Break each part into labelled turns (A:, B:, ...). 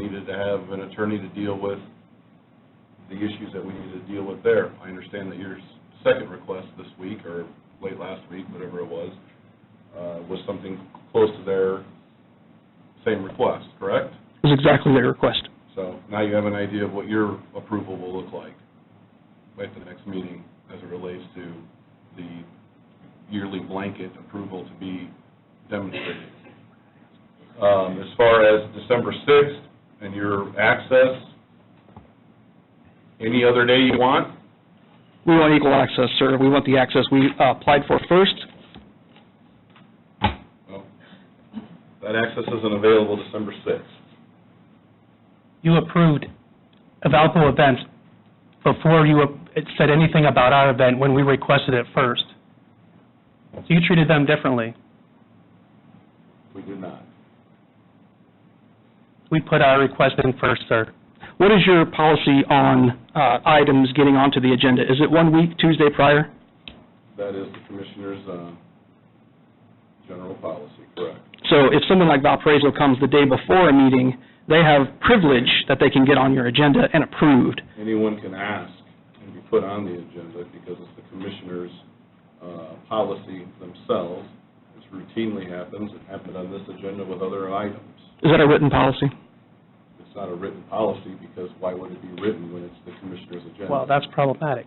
A: to have an attorney to deal with the issues that we need to deal with there. I understand that your second request this week, or late last week, whatever it was, uh, was something close to their same request, correct?
B: It was exactly their request.
A: So now you have an idea of what your approval will look like at the next meeting as it relates to the yearly blanket approval to be demonstrated. Um, As far as December 6th and your access, any other day you want?
B: We want equal access, sir. We want the access we uh, applied for first.
A: Well, That access isn't available December 6th.
C: you approved of Valpo events before you ap- it said anything about our event when we requested it first. So you treated them differently.
A: We do not.
C: We put our request in first, sir.
B: What is your policy on uh, items getting onto the agenda? Is it one week, Tuesday prior?
A: That is the commissioner's uh, general policy, correct?
B: So if someone like Valparaiso comes the day before a meeting, they have privilege that they can get on your agenda and approved.
A: anyone can ask and be put on the agenda because it's the commissioner's uh, policy themselves. This routinely happens, it happened on this agenda with other items.
B: Is that a written policy?
A: It's not a written policy because why would it be written when it's the commissioner's agenda?
C: Well, that's problematic.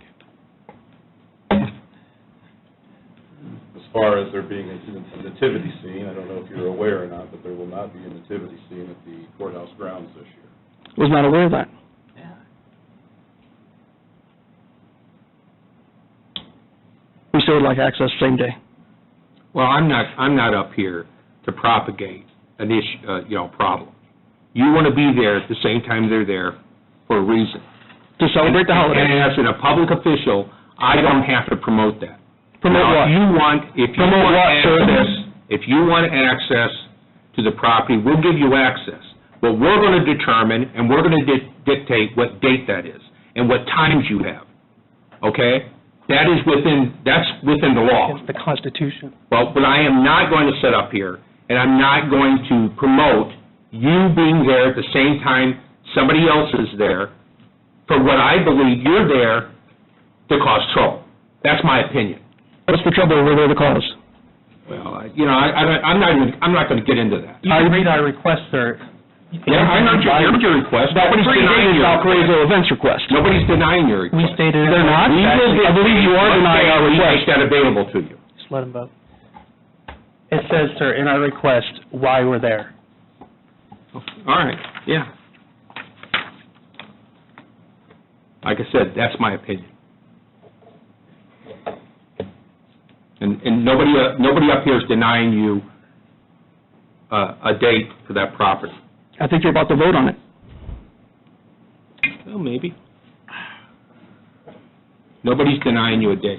A: As far as there being a nativity scene, I don't know if you're aware or not, but there will not be a nativity scene at the courthouse grounds this year.
B: Was not aware of that. We still would like access same day.
D: Well, I'm not, I'm not up here to propagate an issue, uh, you know, problem. You want to be there at the same time they're there for a reason.
B: To celebrate the
D: And
B: holiday.
D: as a public official, I don't have to promote that.
B: Promote
D: Now,
B: what?
D: if you want, if you
B: Promote
D: want
B: what, sir?
D: access, if you want access to the property, we'll give you access. But we're going to determine, and we're going to dictate what date that is, and what times you have, okay? That is within, that's within the law.
C: It's the Constitution.
D: Well, but I am not going to sit up here, and I'm not going to promote you being there at the same time somebody else is there for what I believe you're there to cause trouble. That's my opinion.
B: What's the trouble? We're there to cause.
D: Well, I- you know, I, I- I'm not even, I'm not going to get into that.
C: You can read our request, sir.
D: Yeah, I heard your, I heard your request. Nobody's denying your request.
B: Valparaiso events request.
D: Nobody's denying your
C: We
D: request.
C: stated.
B: They're not?
D: We will
B: I believe you are denying our
D: We
B: request.
D: make that available to you.
C: Just let him vote. It says, sir, in our request, why we're there.
D: All right, yeah. Like I said, that's my opinion. And, and nobody, uh, nobody up here is denying you uh, a date for that property.
B: I think you're about to vote on it.
D: Well, maybe. Nobody's denying you a date.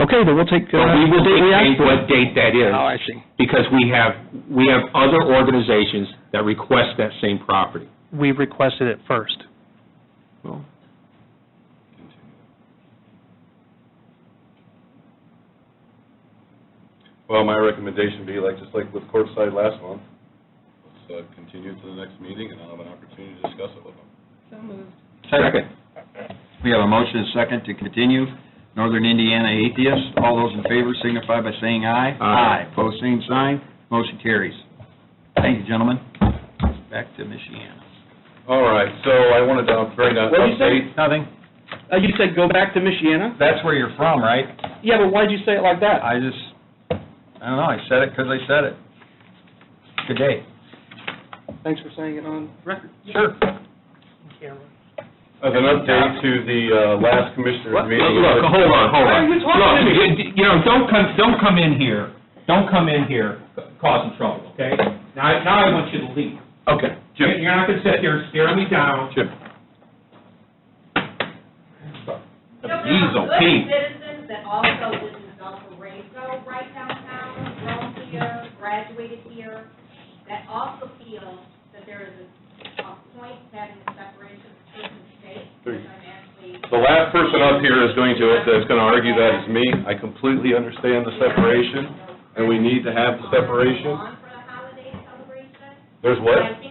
B: Okay, then we'll take, uh,
D: But we will
B: the date we
D: dictate
B: asked for.
D: what date that is.
B: Oh, I see.
D: Because we have, we have other organizations that request that same property.
C: We requested it first.
D: Well,
A: Well, my recommendation would be like, just like with courtside last month, let's uh, continue to the next meeting and I'll have an opportunity to discuss it with them.
D: second.
E: We have a motion and a second to continue. Northern Indiana Atheists, all those in favor signify by saying aye.
D: Aye.
E: Pose same sign, motion carries. Thank you, gentlemen. Back to Michiana.
A: All right, so I wanted to bring up.
F: What'd you say?
E: Nothing.
F: Uh, you said go back to Michiana?
E: That's where you're from, right?
F: Yeah, but why'd you say it like that?
E: I just, I don't know, I said it because I said it. Good day.
F: Thanks for saying it on record.
E: Sure.
A: As an update to the uh, last commissioner's meeting.
D: Look, hold on, hold
F: Why
D: on.
F: are you talking to me?
D: Look, you- you know, don't come, don't come in here, don't come in here causing trouble, okay? Now, now I want you to leave.
A: Okay,
D: You're you're not gonna sit there staring me down.
A: Jim.
D: He's okay.
G: citizens that also live in Valparaiso, right downtown, grown here, graduated here, that also feel that there is a a point having a separation of church and state, which I'm actually
A: The last person up here is going to, that's going to argue that is me. I completely understand the separation, and we need to have the
G: on
A: separation.
G: for the holiday celebration.
A: There's
G: But I
A: what?
G: think